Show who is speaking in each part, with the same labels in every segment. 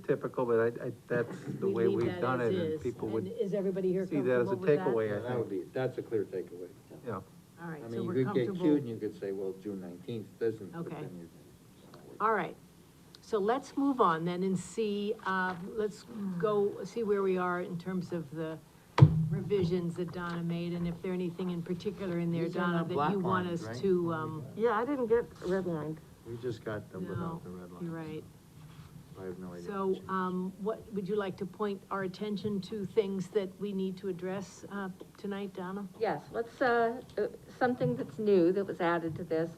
Speaker 1: typical, but I, I, that's the
Speaker 2: We
Speaker 1: way
Speaker 2: leave
Speaker 1: we've
Speaker 2: that
Speaker 1: done
Speaker 2: as
Speaker 1: it, and
Speaker 2: is.
Speaker 1: people
Speaker 2: And
Speaker 1: would,
Speaker 2: Is everybody here
Speaker 1: see that as a
Speaker 2: comfortable with that?
Speaker 1: takeaway.
Speaker 3: Yeah, that would be, that's a clear takeaway.
Speaker 1: yeah.
Speaker 2: All right,
Speaker 3: I
Speaker 2: so
Speaker 3: mean,
Speaker 2: we're
Speaker 3: you could get cute and
Speaker 2: comfortable.
Speaker 3: you could say, well, June nineteenth doesn't. but
Speaker 2: Okay.
Speaker 3: then you-
Speaker 2: All right, so let's move on then and see, uh, let's go, see where we are in terms of the revisions that Donna made, and if there anything in particular in there,
Speaker 3: These are
Speaker 2: Donna,
Speaker 3: not
Speaker 2: that you
Speaker 3: black
Speaker 2: want
Speaker 3: lines,
Speaker 2: us
Speaker 3: right? Oh,
Speaker 2: to, um,
Speaker 4: Yeah, I didn't get redlined.
Speaker 3: We just got them
Speaker 2: no,
Speaker 3: without the red line.
Speaker 2: you're right.
Speaker 3: I have no idea.
Speaker 2: So, um, what, would you like to point our attention to things that we need to address, uh, tonight, Donna?
Speaker 4: Yes, let's, uh, uh, something that's new that was added to this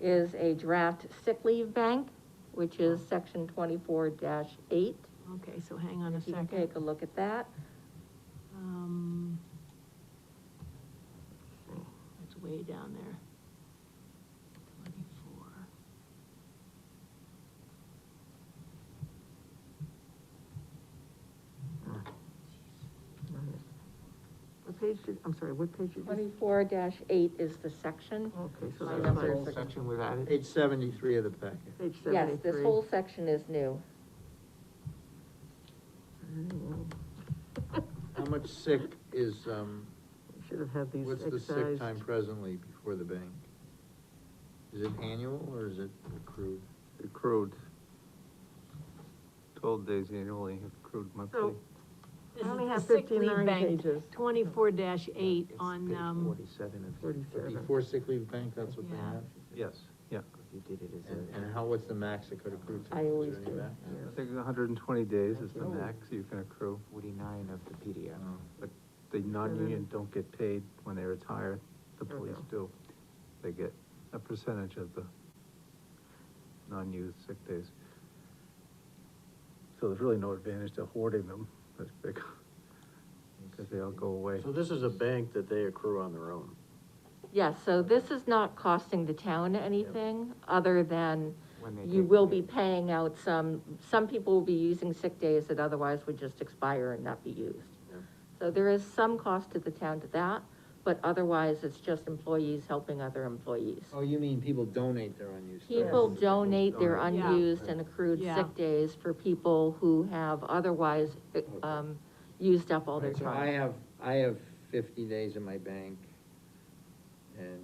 Speaker 4: is a draft sick leave bank, which is section twenty-four eight.
Speaker 2: Okay, so hang on a
Speaker 4: If you can
Speaker 2: second.
Speaker 4: take a look at that.
Speaker 2: Um, it's way down there. Twenty-four.
Speaker 5: What page did, I'm sorry, what page did you?
Speaker 4: Twenty-four eight is the section.
Speaker 5: Okay, so
Speaker 4: My
Speaker 5: that's
Speaker 4: numbers
Speaker 5: whole
Speaker 4: are-
Speaker 5: section was added,
Speaker 3: Page seventy-three of the packet.
Speaker 5: page
Speaker 4: Yes,
Speaker 5: seventy-three.
Speaker 4: this whole section is new.
Speaker 3: How much sick is, um,
Speaker 5: Should have had these
Speaker 3: what's the sick
Speaker 5: excised.
Speaker 3: time presently before the bank? Is it annual or is it accrued?
Speaker 1: Accrued. Twelve days annually, accrued monthly.
Speaker 5: So,
Speaker 2: This
Speaker 5: I
Speaker 2: is
Speaker 5: only
Speaker 2: the
Speaker 5: have
Speaker 2: sick leave
Speaker 5: 59
Speaker 2: bank,
Speaker 5: pages.
Speaker 2: twenty-four dash eight
Speaker 3: It's
Speaker 2: on,
Speaker 3: page
Speaker 2: um,
Speaker 3: Forty-seven of.
Speaker 5: 47.
Speaker 3: Before sick leave bank, that's what they
Speaker 2: Yeah.
Speaker 3: have?
Speaker 1: Yes, yeah,
Speaker 3: You did it as a. And how, what's the max it could accrue to?
Speaker 4: I
Speaker 3: Is there
Speaker 4: always
Speaker 3: any
Speaker 4: do,
Speaker 3: max?
Speaker 1: I think hundred and twenty days is the
Speaker 3: Oh.
Speaker 1: max you can accrue,
Speaker 6: forty-nine of the PDF.
Speaker 3: Oh.
Speaker 1: but the non-union don't get paid when they retire, the police do. They get a percentage of the non-used sick days. So there's really no advantage to hoarding them, that's big, because they all go away.
Speaker 7: So this is a bank that they accrue on their own.
Speaker 4: Yes, so this is not costing the town anything, other than
Speaker 6: When they
Speaker 4: you
Speaker 6: take
Speaker 4: will be
Speaker 6: the-
Speaker 4: paying out some, some people will be using sick days that otherwise would just expire and not be used. So there is some cost to the town to that, but otherwise it's just employees helping other employees.
Speaker 3: Oh, you mean people donate their unused. time?
Speaker 4: People donate their
Speaker 2: Yeah.
Speaker 4: unused and accrued
Speaker 2: Yeah.
Speaker 4: sick days for people who have otherwise, um, used up all their
Speaker 3: Right, So I
Speaker 4: time.
Speaker 3: have, I have fifty days in my bank, and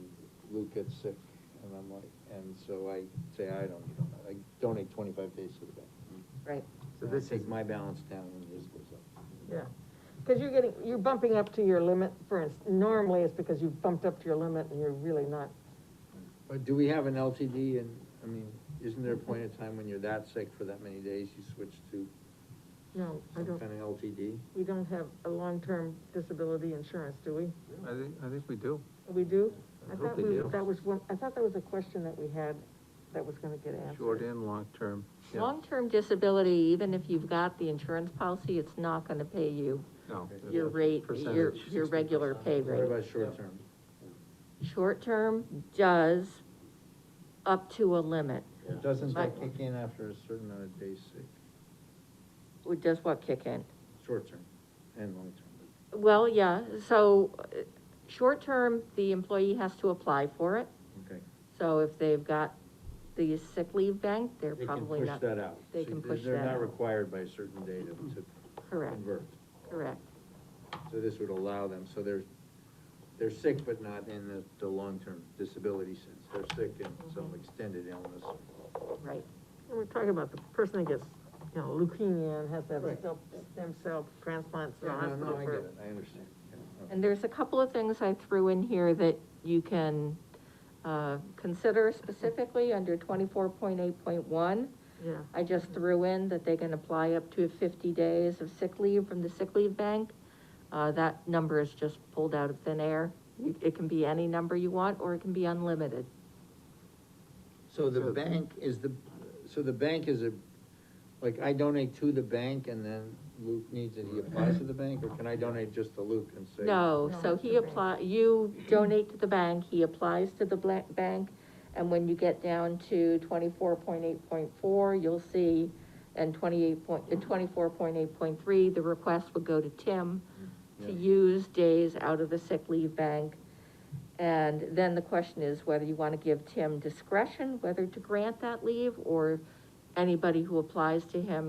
Speaker 3: Luke gets sick, and I'm like, and so I say, I don't, need all that." I donate twenty-five days to the bank.
Speaker 4: Right,
Speaker 3: So this takes my balance down and his goes up.
Speaker 5: Yeah, because you're getting, you're bumping up to your limit, for instance, normally it's because you've bumped up to your limit and you're really not.
Speaker 3: But do we have an LTD, and, I mean, isn't there a point in time when you're that sick for that many days, you switch to
Speaker 5: No, I
Speaker 3: some
Speaker 5: don't,
Speaker 3: kind of LTD?
Speaker 5: we don't have a long-term disability insurance, do we?
Speaker 1: I think, I think we do.
Speaker 5: We do?
Speaker 3: I
Speaker 5: I
Speaker 3: hope
Speaker 5: thought
Speaker 3: they
Speaker 5: we,
Speaker 3: do.
Speaker 5: that was one, I thought that was a question that we had that was gonna get answered.
Speaker 1: Short and long term, yeah,
Speaker 4: long-term disability, even if you've got the insurance policy, it's not gonna pay you
Speaker 1: no.
Speaker 4: your rate, your,
Speaker 1: Percentage.
Speaker 4: your regular pay
Speaker 3: What
Speaker 4: rate.
Speaker 3: about short-term?
Speaker 4: Short-term does up to a limit.
Speaker 3: Doesn't that
Speaker 4: Right.
Speaker 3: kick in after a certain amount of days sick,
Speaker 4: Does what kick in?
Speaker 3: short-term and long-term?
Speaker 4: Well, yeah, so, uh, short-term, the employee has to apply for it.
Speaker 3: Okay.
Speaker 4: So if they've got the sick leave bank, they're
Speaker 3: They can
Speaker 4: probably
Speaker 3: push
Speaker 4: not.
Speaker 3: that out.
Speaker 4: they
Speaker 3: So
Speaker 4: can push
Speaker 3: They're
Speaker 4: that
Speaker 3: not
Speaker 4: out.
Speaker 3: required by a certain date of- to
Speaker 4: Correct,
Speaker 3: convert,
Speaker 4: correct.
Speaker 3: so this would allow them, so they're, they're sick, but not in the, the long-term disability sense, they're sick
Speaker 4: Mm-hmm.
Speaker 3: in some extended illness.
Speaker 4: Right,
Speaker 5: And We're talking about the person that gets, you know, leukemia and has to have a
Speaker 3: Right.
Speaker 5: stem- stem cell transplant, so
Speaker 3: Yeah, no, no,
Speaker 5: hospital
Speaker 3: I get
Speaker 5: for
Speaker 3: it, I understand. Yeah,
Speaker 4: and there's a couple of things I threw in here that you can, uh, consider specifically under twenty-four point eight point one.
Speaker 5: Yeah,
Speaker 4: I just threw in that they can apply up to fifty days of sick leave from the sick leave bank. Uh, that number is just pulled out of thin air. You- It can be any number you want, or it can be unlimited.
Speaker 3: So the bank is the, so the bank is a, like, I donate to the bank and then Luke needs it, he applies to the bank, or can I donate just to Luke and say?
Speaker 4: No,
Speaker 5: No,
Speaker 4: so
Speaker 5: it's
Speaker 4: he
Speaker 5: the bank.
Speaker 4: apply, you donate to the bank, he applies to the bla- bank, and when you get down to twenty-four point eight point four, you'll see, and twenty-eight point, uh, twenty-four point eight point three, the request would go to Tim to
Speaker 3: Mm-hmm. Yeah.
Speaker 4: use days out of the sick leave bank. And then the question is whether you wanna give Tim discretion, whether to grant that leave, or anybody who applies to him